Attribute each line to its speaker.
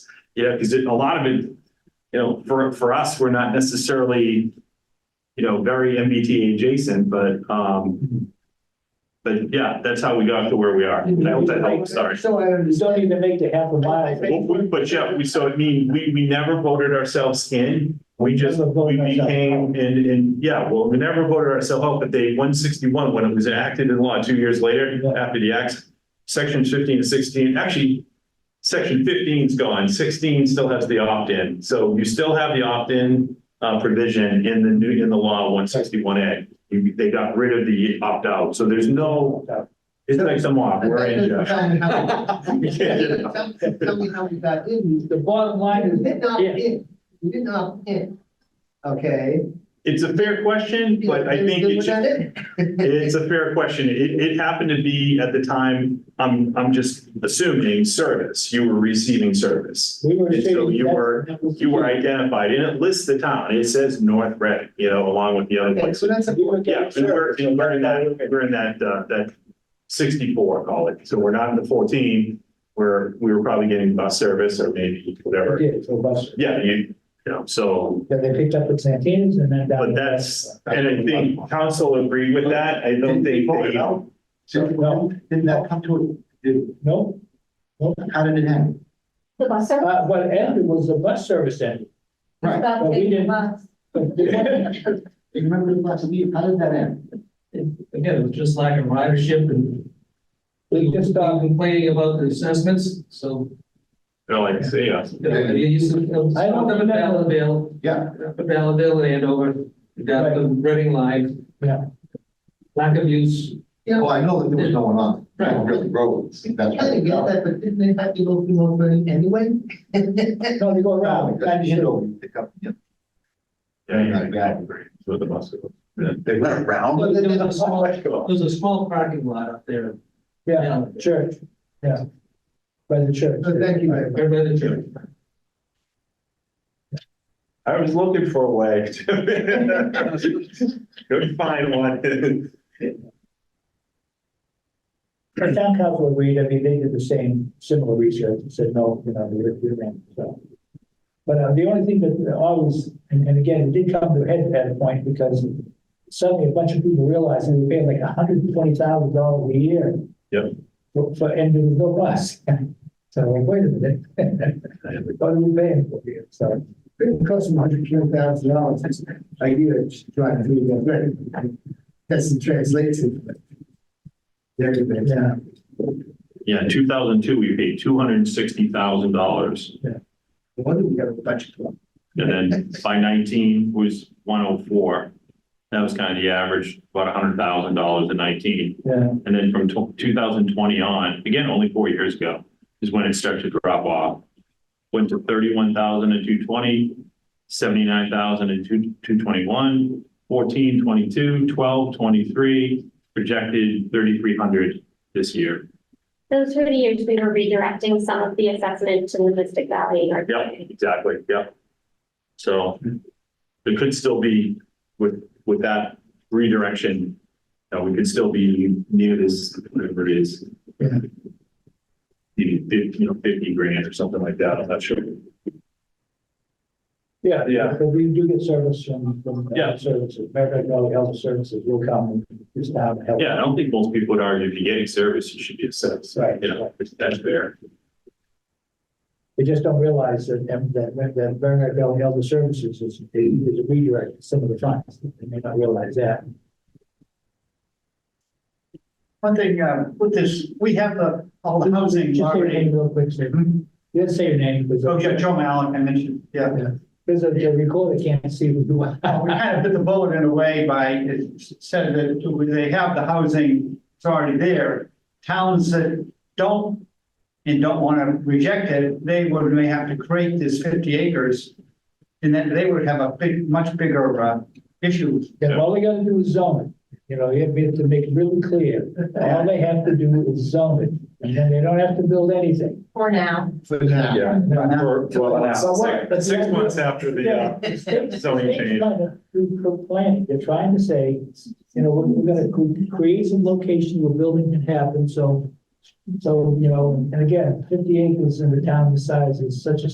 Speaker 1: Yeah, because a lot of it, you know, for, for us, we're not necessarily, you know, very MBTA adjacent, but, um, but yeah, that's how we got to where we are. I hope that helps, sorry.
Speaker 2: So I just don't even make the half a
Speaker 1: Well,
Speaker 2: mile.
Speaker 1: we- But yeah, we, so I mean, we, we never voted ourselves in. We just, we became, and, and yeah, well, we never voted ourselves out, but they, one sixty-one, when it was enacted in law two years later, after the act, section fifteen to sixteen, actually, section 15's gone, sixteen still has the opt-in. So you still have the opt-in uh, provision in the new, in the law one sixty-one A. They got rid of the opt-out, so there's no, it's like some off, we're in, Josh.
Speaker 3: Tell me how tell- tell me how we got in.
Speaker 2: The bottom line
Speaker 3: You
Speaker 2: is,
Speaker 3: did not
Speaker 2: yeah,
Speaker 3: in, you did not in. Okay.
Speaker 1: It's a fair question, but I think
Speaker 3: You
Speaker 1: it's
Speaker 3: were not in.
Speaker 1: It's a fair question. It, it happened to be at the time, I'm, I'm just assuming service, you were receiving service.
Speaker 2: we were
Speaker 1: And so
Speaker 2: saying.
Speaker 1: you were, you were identified and it lists the town. It says North Reading, you know, along with the other
Speaker 3: Okay,
Speaker 1: places.
Speaker 3: so that's a.
Speaker 2: You were-
Speaker 1: Yeah, and we're, and we're in that, we're in that, uh, that sixty-four, call it. So we're not in the fourteen. Where we were probably getting bus service or maybe whatever.
Speaker 2: Yeah, for bus.
Speaker 1: Yeah, you, you know, so
Speaker 2: Yeah, they picked up at Santana's and then. down-
Speaker 1: but that's, and I think council agreed with that. I don't think they.
Speaker 2: No,
Speaker 3: Didn't that come to, did,
Speaker 2: no,
Speaker 3: how did it happen?
Speaker 4: The bus service?
Speaker 2: uh, what ended was the bus service ended.
Speaker 3: Right.
Speaker 4: About
Speaker 2: But we
Speaker 4: taking the
Speaker 2: didn't-
Speaker 4: bus.
Speaker 2: But the one-
Speaker 3: You remember the last meeting, how did that end?
Speaker 5: Again, it was just lack of ridership and
Speaker 2: We
Speaker 5: we
Speaker 2: just,
Speaker 5: just uh,
Speaker 2: uh,
Speaker 5: complaining about the assessments, so.
Speaker 1: They're like, see us.
Speaker 5: you know, they used to-
Speaker 2: I don't
Speaker 5: Up at
Speaker 2: remember.
Speaker 5: Ballardale,
Speaker 3: Yeah,
Speaker 5: up at Ballardale and over, down the Reading line.
Speaker 2: Yeah.
Speaker 5: Lack of use.
Speaker 3: yeah,
Speaker 5: Yeah.
Speaker 3: well, I know that there was no one on,
Speaker 5: Right.
Speaker 3: on really roads, that's.
Speaker 6: I kind of get that, but didn't they have to go through North Reading anyway?
Speaker 2: no, they go
Speaker 3: Wow,
Speaker 6: Oh,
Speaker 2: around.
Speaker 3: that
Speaker 2: That
Speaker 3: is
Speaker 2: is-
Speaker 3: no, pick up, you know,
Speaker 1: Yeah, yeah, exactly. So the bus.
Speaker 3: They went around.
Speaker 5: There was a small, there was a small parking lot up there.
Speaker 2: Yeah,
Speaker 5: down there,
Speaker 2: church, yeah. By the church.
Speaker 6: So thank you.
Speaker 5: Right by the church.
Speaker 1: I was looking for a way. to Couldn't find one.
Speaker 2: The town council agreed, I mean, they did the same, similar research, and said, no, you know, you're, you're in, so. But uh, the only thing that always, and, and again, it did come to a head at a point, because suddenly a bunch of people realized we were paying like hundred and twenty thousand dollars a year.
Speaker 1: Yep.
Speaker 2: For, for- and there was no bus, so like, wait a minute. What are we paying for here, so.
Speaker 6: It costs them hundred twenty thousand dollars a year to drive through North Reading. That's the translation. There you go.
Speaker 2: Yeah.
Speaker 1: Yeah, two thousand two, we paid two hundred and sixty thousand dollars.
Speaker 6: No wonder we got a budget. problem.
Speaker 1: And then by nineteen was one oh four. That was kind of the average, about hundred thousand dollars in nineteen.
Speaker 2: Yeah,
Speaker 1: And then from two thousand twenty on, again, only four years ago, is when it started to drop off. Went to thirty-one thousand and two twenty, seventy-nine thousand and two, two twenty-one, fourteen, twenty-two, twelve, twenty-three, projected thirty-three hundred this year.
Speaker 7: Those were the years we were redirecting some of the assessment to the Mystic Valley. and our-
Speaker 1: Yep, exactly, yep. So it could still be with, with that redirection, uh, we could still be near this, whatever it is.
Speaker 2: Yeah.
Speaker 1: Maybe fifty, you know, fifty grand or something like that, I'm not sure.
Speaker 2: yeah.
Speaker 1: Yeah.
Speaker 2: But we do get service from, from. uh,
Speaker 1: Yeah.
Speaker 2: Services, American Health Services will come and just have help.
Speaker 1: Yeah, I don't think most people would argue if you're getting service, you should be assessed,
Speaker 2: Right.
Speaker 1: you know, that's fair.
Speaker 2: They just don't realize that, um, that, that Bernard Valley Elder Services is, is a redirect to some of the funds. They may not realize that.
Speaker 6: One thing, uh, with this, we have the, all the housing
Speaker 2: Just say your
Speaker 6: already.
Speaker 2: name real quick, sir. You didn't say your name. because-
Speaker 6: Oh, yeah, Joe Malik, I mentioned, yeah.
Speaker 2: Because the the recorder can't see who you
Speaker 6: Uh, We
Speaker 2: are.
Speaker 6: kind of bit the bullet in a way by, it said that they have the housing, it's already there. Towns that don't and don't want to reject it, they would may have to create this fifty acres. And then they would have a big, much bigger uh, issue.
Speaker 2: Then all they gotta do is zone it. You know, you have to make it really clear. All they have to do is zone it. And then they don't have to build anything.
Speaker 4: For now.
Speaker 6: For that.
Speaker 1: Yeah.
Speaker 6: For-
Speaker 2: But
Speaker 1: Six
Speaker 2: the-
Speaker 1: months after the, uh, zoning
Speaker 2: They're
Speaker 1: change.
Speaker 2: trying to do pro- planning. They're trying to say, you know, we're, we're gonna cre- create some location where building can happen, so. So, you know, and again, fifty acres in the town the size is such a